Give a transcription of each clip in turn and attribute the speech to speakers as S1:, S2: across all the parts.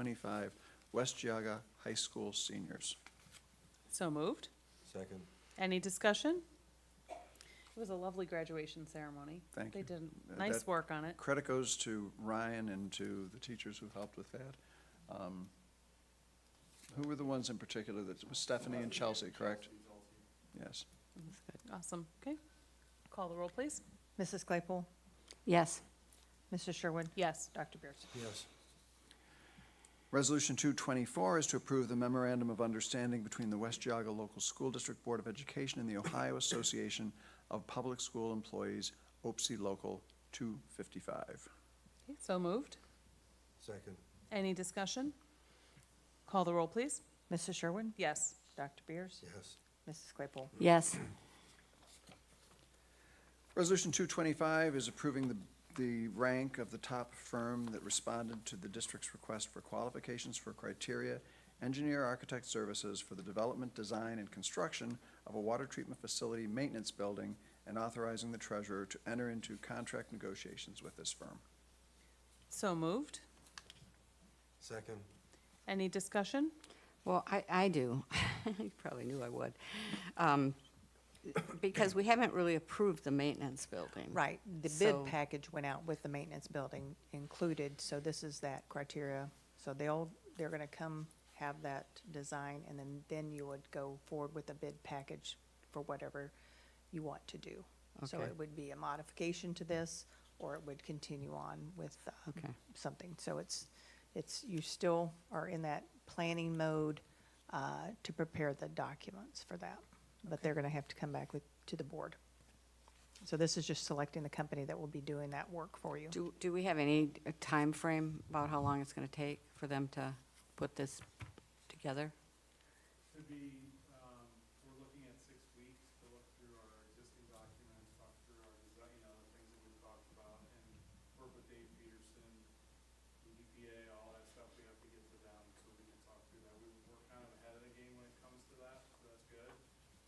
S1: twenty-five, West Jaga High School seniors.
S2: So moved.
S3: Second.
S2: Any discussion? It was a lovely graduation ceremony.
S1: Thank
S2: They
S1: you.
S2: did
S1: Uh,
S2: nice
S1: that-
S2: work on it.
S1: Credit goes to Ryan and to the teachers who helped with that. Um, Who were the ones in particular that, was Stephanie and Chelsea, correct? Yes.
S2: It was good. Awesome. Okay. Call the roll, please.
S4: Mrs. Claypool?
S5: Yes.
S4: Mrs. Sherwood?
S2: Yes.
S4: Dr. Beers?
S3: Yes.
S1: Resolution 224 is to approve the memorandum of understanding between the West Jaga Local School District Board of Education and the Ohio Association of Public School Employees, OPSE E Local 255.
S2: Okay, So moved.
S3: Second.
S2: Any discussion? Call the roll, please.
S4: Mrs. Sherwood?
S2: Yes.
S4: Dr. Beers?
S3: Yes.
S4: Mrs. Claypool?
S5: Yes.
S1: Resolution 225 is approving the, the rank of the top firm that responded to the district's request for qualifications for criteria, engineer architect services for the development, design, and construction of a water treatment facility maintenance building, and authorizing the treasurer to enter into contract negotiations with this firm.
S2: So moved.
S3: Second.
S2: Any discussion?
S5: Well, I, I do. You probably knew I would. Um, Because we haven't really approved the maintenance building.
S4: Right, the bid
S5: So-
S4: package went out with the maintenance building included, so this is that criteria. So they'll, they're gonna come have that design, and then, then you would go forward with a bid package for whatever you want to do. So
S5: Okay.
S4: it would be a modification to this, or it would continue on with um,
S5: Okay.
S4: something. So it's, it's, you still are in that planning mode uh, to prepare the documents for that. But they're gonna have to come back with, to the board. So this is just selecting the company that will be doing that work for you.
S5: Do, do we have any time frame about how long it's going to take for them to put this together?
S6: Could be, um, we're looking at six weeks to look through our existing documents, talk through our design, you know, the things that we've talked about, and work with Dave Peterson, the EPA, all that stuff, we have to get to them, so we can talk through that. We, we're kind of ahead of the game when it comes to that, so that's good,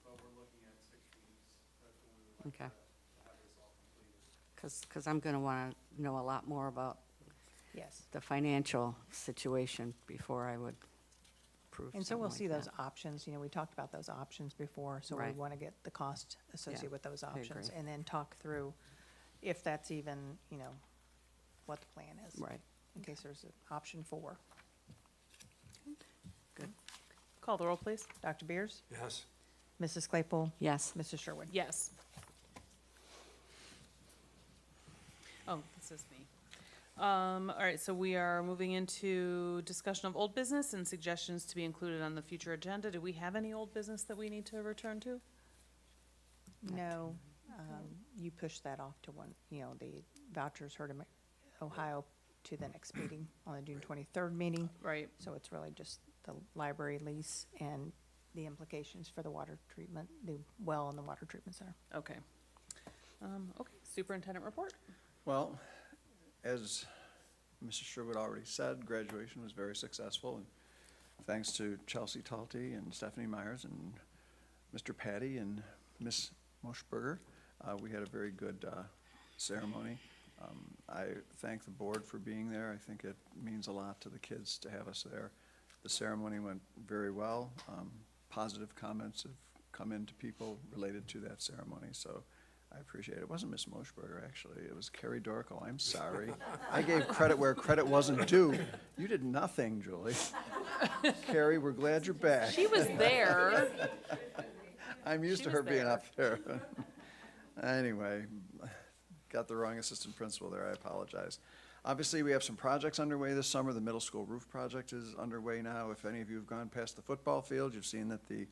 S6: but we're looking at six weeks, that's when we would
S5: Okay.
S6: like to to have this all completed.
S5: Because, because I'm going to want to know a lot more about
S4: Yes.
S5: the financial situation before I would approve
S4: And so we'll see
S5: something like
S4: those options, you know, we talked about those options before, so we
S5: Right.
S4: want to get the cost associated with those options.
S5: agree.
S4: And then talk through if that's even, you know, what the plan is.
S5: that. Right.
S4: In case there's an option four.
S2: Call the roll, please.
S4: Dr. Beers?
S3: Yes.
S4: Mrs. Claypool?
S5: Yes.
S4: Mrs. Sherwood?
S2: Yes. Oh, this is me. Um, all right, so we are moving into discussion of old business and suggestions to be included on the future agenda. Do we have any old business that we need to return to?
S4: No, um, you push that off to one, you know, the vouchers heard in Ohio to the next meeting, on the June twenty-third meeting.
S2: Right.
S4: So it's really just the library lease and the implications for the water treatment, the well and the water treatment center.
S2: Okay. Um, okay, superintendent report?
S1: Well, as Mrs. Sherwood already said, graduation was very successful, and thanks to Chelsea Talty and Stephanie Myers and Mr. Patty and Miss Moschberger, uh, we had a very good uh, ceremony. Um, I thank the board for being there. I think it means a lot to the kids to have us there. The ceremony went very well. Um, Positive comments have come into people related to that ceremony, so I appreciate it. It wasn't Miss Moschberger, actually. It was Carrie Dorco. I'm sorry. I gave credit where credit wasn't due. You did nothing, Julie. Carrie, we're glad you're back.
S2: She was there.
S1: I'm used
S2: She
S1: to
S2: was
S1: her being
S2: there.
S1: up there. Anyway, got the wrong assistant principal there, I apologize. Obviously, we have some projects underway this summer. The middle school roof project is underway now. If any of you have gone past the football field, you've seen that the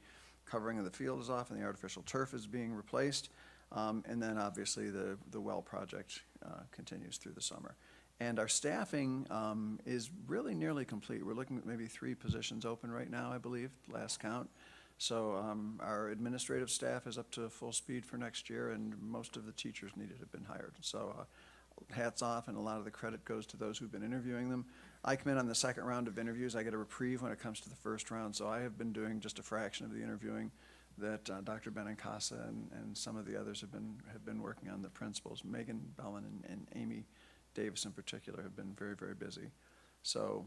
S1: covering of the field is off and the artificial turf is being replaced. Um, and then obviously the, the well project, uh, continues through the summer. And our staffing, um, is really nearly complete. We're looking at maybe three positions open right now, I believe, last count. So um, our administrative staff is up to full speed for next year, and most of the teachers needed have been hired. So uh, hats off, and a lot of the credit goes to those who've been interviewing them. I come in on the second round of interviews. I get a reprieve when it comes to the first round, so I have been doing just a fraction of the interviewing that uh, Dr. Benincasa and, and some of the others have been, have been working on, the principals. Megan Bellin and- and Amy Davis in particular have been very, very busy. So